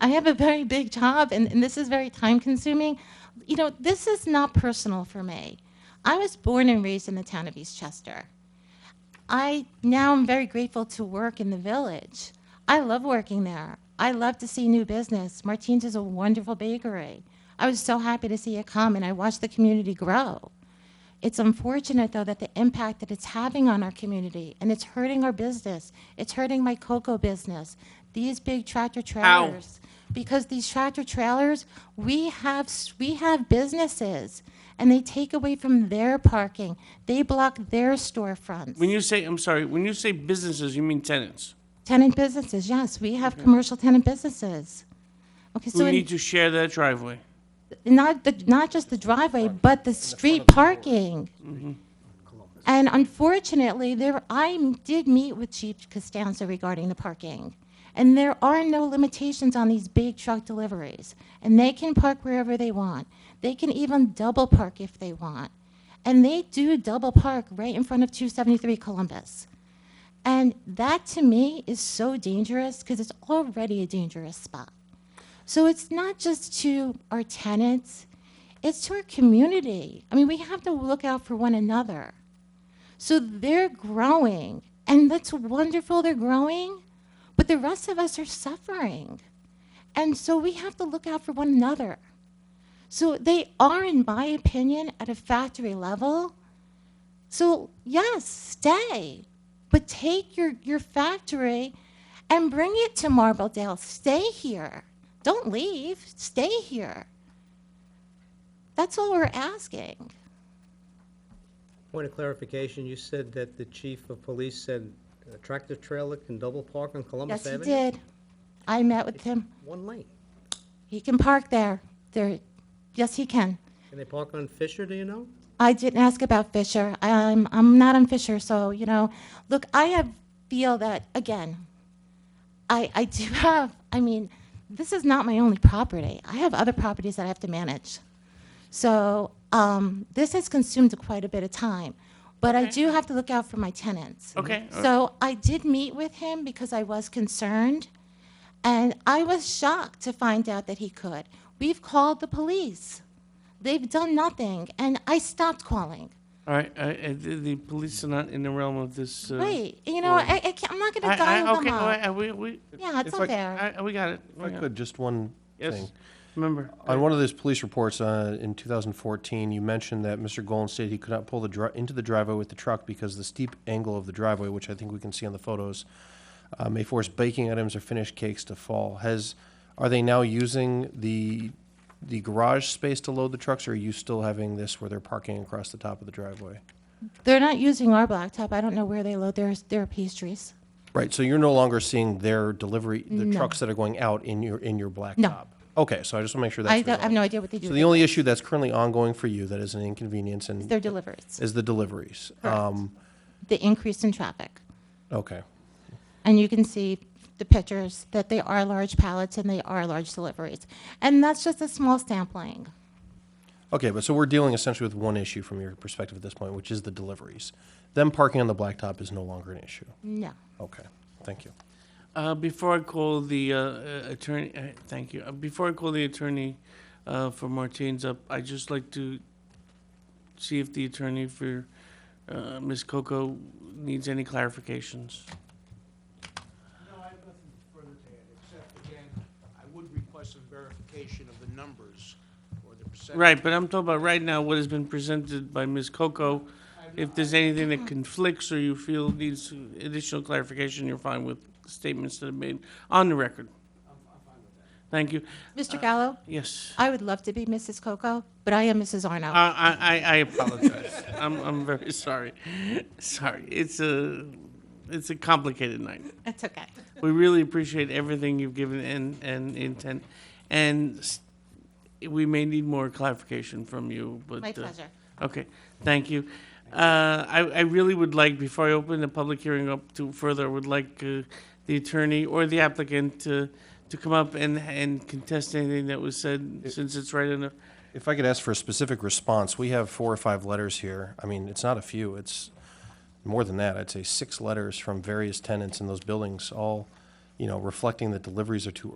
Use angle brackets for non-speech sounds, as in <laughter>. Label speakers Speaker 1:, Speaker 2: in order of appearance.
Speaker 1: I have a very big job, and, and this is very time consuming. You know, this is not personal for me. I was born and raised in the town of Eastchester. I now am very grateful to work in the village. I love working there. I love to see new business. Martine's is a wonderful bakery. I was so happy to see it come, and I watched the community grow. It's unfortunate, though, that the impact that it's having on our community and it's hurting our business. It's hurting my cocoa business. These big tractor trailers, because these tractor trailers, we have s- we have businesses, and they take away from their parking. They block their storefronts.
Speaker 2: When you say, I'm sorry, when you say businesses, you mean tenants
Speaker 1: tenant businesses, yes, we have commercial tenant businesses. Okay, so
Speaker 2: who
Speaker 1: in-
Speaker 2: need to share their driveway.
Speaker 1: not the, not just the driveway, but the street parking. And unfortunately, there, I did meet with Chief Costanza regarding the parking. And there are no limitations on these big truck deliveries. And they can park wherever they want. They can even double park if they want. And they do double park right in front of 273 Columbus. And that to me is so dangerous because it's already a dangerous spot. So it's not just to our tenants, it's to our community. I mean, we have to look out for one another. So they're growing, and that's wonderful, they're growing, but the rest of us are suffering. And so we have to look out for one another. So they are, in my opinion, at a factory level. So, yes, stay, but take your, your factory and bring it to Marbledale. Stay here. Don't leave. Stay here. That's all we're asking.
Speaker 3: Point of clarification, you said that the chief of police said a tractor trailer can double park on
Speaker 1: Yes,
Speaker 3: Columbus
Speaker 1: he
Speaker 3: Avenue?
Speaker 1: did. I met with him.
Speaker 3: One lane.
Speaker 1: He can park there. There, yes, he can.
Speaker 3: Can they park on Fisher, do you know?
Speaker 1: I didn't ask about Fisher. I'm, I'm not on Fisher, so, you know, look, I have, feel that, again, I, I do <laughs> have, I mean, this is not my only property. I have other properties that I have to manage. So, um, this has consumed quite a bit of time, but I do have to look out for my tenants.
Speaker 2: Okay, all
Speaker 1: So I did meet with him because I was concerned, and I was shocked to find out that he could. We've called the police. They've done nothing, and I stopped calling.
Speaker 2: All right, I, I, the, the police are not in the realm of this. Uh,
Speaker 1: Wait, you know,
Speaker 2: or-
Speaker 1: I, I can't, I'm not
Speaker 2: I,
Speaker 1: gonna
Speaker 2: I,
Speaker 1: dial them
Speaker 2: okay, all
Speaker 1: up.
Speaker 2: right, we, we,
Speaker 1: Yeah, it's
Speaker 4: If I-
Speaker 1: unfair.
Speaker 2: I, I- we got it.
Speaker 4: If I
Speaker 2: we got
Speaker 4: could,
Speaker 2: it.
Speaker 4: just one
Speaker 2: Yes.
Speaker 4: thing.
Speaker 2: Remember,
Speaker 4: On one of those police reports uh, in 2014, you mentioned that Mr. Golan stated he could not pull the dri- into the driveway with the truck because the steep angle of the driveway, which I think we can see on the photos, uh, may force baking items or finished cakes to fall. Has are they now using the the garage space to load the trucks, or are you still having this where they're parking across the top of the driveway?
Speaker 1: They're not using our blacktop. I don't know where they load their, their pastries.
Speaker 4: Right. So you're no longer seeing their delivery, the
Speaker 1: No.
Speaker 4: trucks that are going out in your in your blacktop. Okay. So I just want to make sure that's.
Speaker 1: I don't, I have
Speaker 4: resolved.
Speaker 1: no idea what they do.
Speaker 4: So
Speaker 1: with
Speaker 4: the
Speaker 1: their-
Speaker 4: only issue that's currently ongoing for you that is an inconvenience and
Speaker 1: Their deliveries,
Speaker 4: is the deliveries. Um,
Speaker 1: the increase in traffic.
Speaker 4: okay.
Speaker 1: And you can see the pictures that they are large pallets and they are large deliveries. And that's just a small sampling.
Speaker 4: Okay, but so we're dealing essentially with one issue from your perspective at this point, which is the deliveries. Them parking on the blacktop is no longer an issue.
Speaker 1: No.
Speaker 4: Okay, thank you.
Speaker 2: uh, before I call the uh, uh, attorney, uh, thank you. Uh, before I call the attorney uh, for Martine's up, I'd just like to see if the attorney for uh, Ms. Coco needs any clarifications.
Speaker 5: No, I have nothing further to add, except again, I would request some verification of the numbers or the percentage.
Speaker 2: Right, but I'm talking about right now what has been presented by Ms. Coco. If there's anything that conflicts or you feel needs additional clarification, you're fine with statements that have been on the record. Thank you.
Speaker 1: Mr. Gallo,
Speaker 2: Yes.
Speaker 1: I would love to be Mrs. Coco, but I am Mrs. Arno.
Speaker 2: I, I, I- I apologize. <laughs> I'm, I'm very sorry. Sorry. It's a, it's a complicated night.
Speaker 1: That's okay.
Speaker 2: We really appreciate everything you've given and, and intent. And s- we may need more clarification from you, but.
Speaker 1: My
Speaker 2: uh,
Speaker 1: pleasure.
Speaker 2: Okay, thank you. Uh, I, I really would like, before I open the public hearing up to further, I would like uh, the attorney or the applicant to, to come up and, and contest anything that was said, since it's right in the,
Speaker 4: If I could ask for a specific response, we have four or five letters here. I mean, it's not a few, it's more than that. I'd say six letters from various tenants in those buildings, all, you know, reflecting that deliveries are too